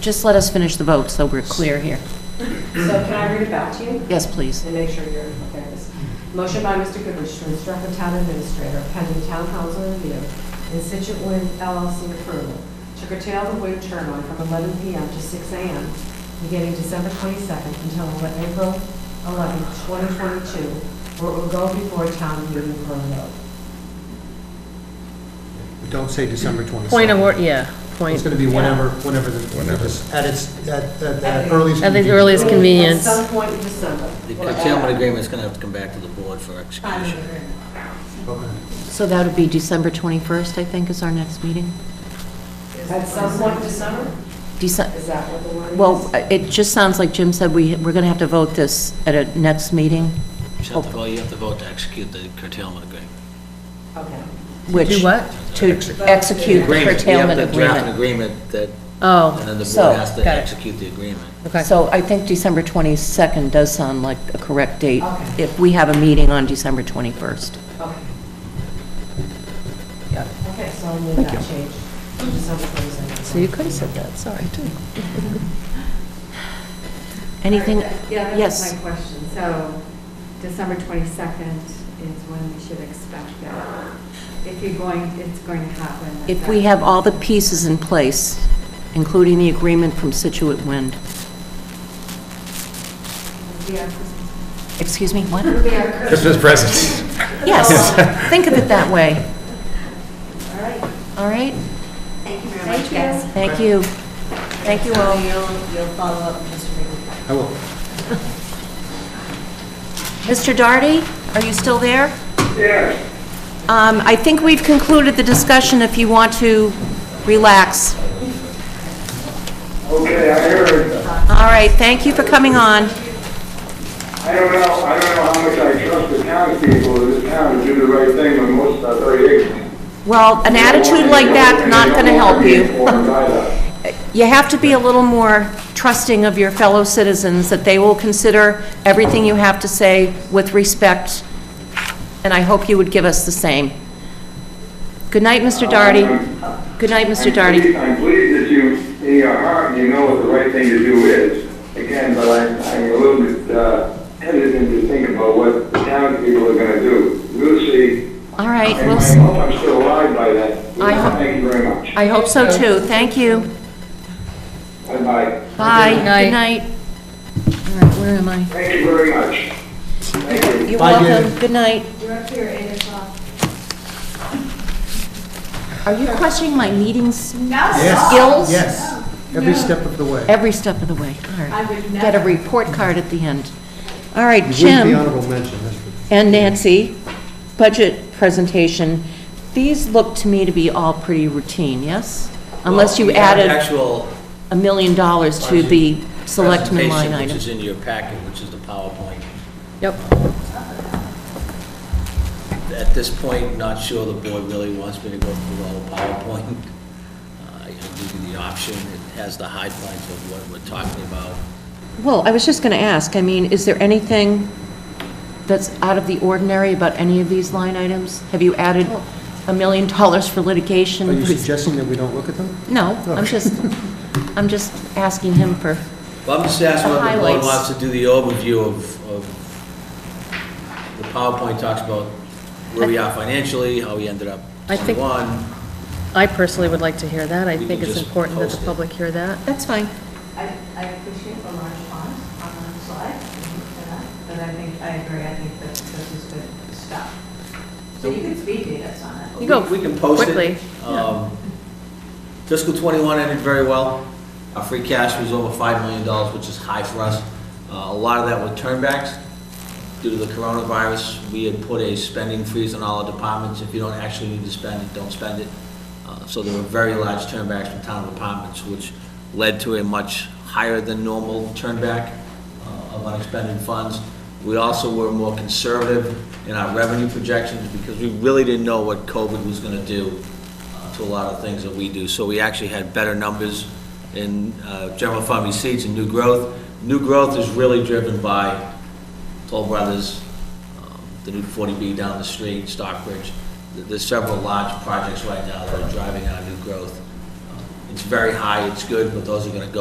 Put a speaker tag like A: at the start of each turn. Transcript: A: Just let us finish the vote, so we're clear here.
B: So can I read it back to you?
A: Yes, please.
B: And make sure you're, there it is. Motion by Mr. Goodrich to instruct the town administrator pending town council review and Situate Wind LLC approval to curtail the wind turbine from 11 PM to 6 AM beginning December 22nd until April 11, 2022, where it will go before town meeting for a vote.
C: But Don't say December 27th.
D: Point of, or- yeah,
C: It's
D: point,
C: going to be whenever, whenever the,
E: Whenever.
C: at its, at, at the earliest.
D: at the
C: convenience.
D: earliest
B: At
D: convenience.
B: some point in December.
F: The curtailment agreement's going to have to come back to the board for execution.
C: Okay.
A: So that would be December 21st, I think, is our next meeting?
B: At some point in December?
A: Dece-
B: Is that what the word is?
A: Well, it just sounds like Jim said we, we're going to have to vote this at a next meeting,
F: You have to vote, you have to vote to execute the curtailment agreement.
B: Okay.
A: which...
D: Do what?
A: To execute the
F: Agreement, you have
A: curtailment
F: to draft an
A: agreement.
F: agreement that, and
D: Oh,
F: then the
A: So,
F: board has to
D: got it.
F: execute the agreement.
D: okay.
A: So I think December 22nd does sound like a correct date,
B: Okay.
A: if we have a meeting on December 21st.
B: Okay.
A: Got it.
B: Okay, so I made that change. December 22nd.
D: So you could have said that, sorry, too.
A: Anything?
G: Yeah, that's
A: Yes.
G: my question. So December 22nd is when we should expect that. If you're going, it's going to happen. at
A: If
G: that-
A: we have all the pieces in place, including the agreement from Situate Wind.
G: It'll be our Christmas-
A: Excuse me, what?
G: it'll be our
E: Christmas presents.
A: Yes, think of it that way. All right. All right,
H: Thank you very much,
G: Thank
H: guys.
G: you.
A: thank you. Thank you all.
H: You'll, you'll follow up, Mr. Regan.
C: I will.
A: Mr. Darty, are you still there? Yes. Um, I think we've concluded the discussion if you want to relax.
I: Okay, I heard,
A: All right, thank you for coming on.
I: I don't know, I don't know how much I trust the townspeople of this town to do the right thing when most are very ignorant.
A: Well, an attitude like that's not going to help
I: They
A: you.
I: don't want to be informed either.
A: you have to be a little more trusting of your fellow citizens, that they will consider everything you have to say with respect, and I hope you would give us the same. Good night, Mr. Darty. Good night, Mr.
I: I'm pleased-
A: Darty.
I: I'm pleased that you, in your heart, you know what the right thing to do is. Again, but I'm, I'm a little bit uh, hesitant to think about what the townspeople are gonna do. We'll see.
A: All right,
I: And
A: we'll
I: I
A: s-
I: hope I'm still alive by then.
A: I hope-
I: Thank you very much.
A: I hope so too. Thank you.
I: Bye-bye.
A: Bye. Good
D: night.
A: night. All right, where am I?
I: Thank you very much. Thank you.
A: You're
C: Bye, David.
A: welcome. Good night.
G: You're up here at 8 o'clock.
A: Are you questioning my meeting
C: Yes.
A: skills?
C: Yes, every step of the way.
A: Every step of the way. All right.
G: I would
A: Get a
G: never.
A: report card at the end. All right,
C: You
A: Jim.
C: wouldn't be honorable mention, that's for
A: and Nancy, budget presentation, these look to me to be all pretty routine, yes? Unless you
F: Well, we have the
A: added
F: Actual
A: a million dollars to
F: budget
A: the selectmen line
F: presentation,
A: item.
F: Which is in your packet, which is the PowerPoint.
D: Yep.
F: At this point, not sure the board really wants me to go through all the PowerPoint. Uh, I'll give you the option, it has the highlights of what we're talking about.
A: Well, I was just going to ask, I mean, is there anything that's out of the ordinary about any of these line items? Have you added
G: Oh.
A: a million dollars for litigation?
C: Are you suggesting that we don't look at them?
A: No, I'm just, I'm just asking him for,
F: Well, I'm just asking
A: The
F: whether the board
A: highlights.
F: wants to do the overview of, of, the PowerPoint talks about where we are financially, how we ended up
D: I think-
F: one.
D: I personally would like to hear that. I
F: We
D: think
F: can
D: it's
F: just
D: important that
F: post
D: the
F: it.
D: public hear that.
A: that's fine.
H: I, I appreciate the large font on one slide, for that, but I think, I agree, I think that this is good stuff. So you can speed date us on it.
D: You go
F: We can post it.
D: quickly, yeah.
F: Um, Fiscal '21 ended very well. Our free cash was over $5 million, which is high for us. Uh, A lot of that were turnbacks. Due to the coronavirus, we had put a spending freeze on all our departments. If you don't actually need to spend it, don't spend it. Uh, So there were very large turnbacks from town departments, which led to a much higher than normal turnback uh, of unexpended funds. We also were more conservative in our revenue projections because we really didn't know what COVID was going to do uh, to a lot of things that we do. So we actually had better numbers in uh, general fund receipts and new growth. New growth is really driven by Toll Brothers, um, the new 40B down the street, Stockbridge. There- There's several large projects right now that are driving our new growth. Uh, It's very high, it's good, but those are going to go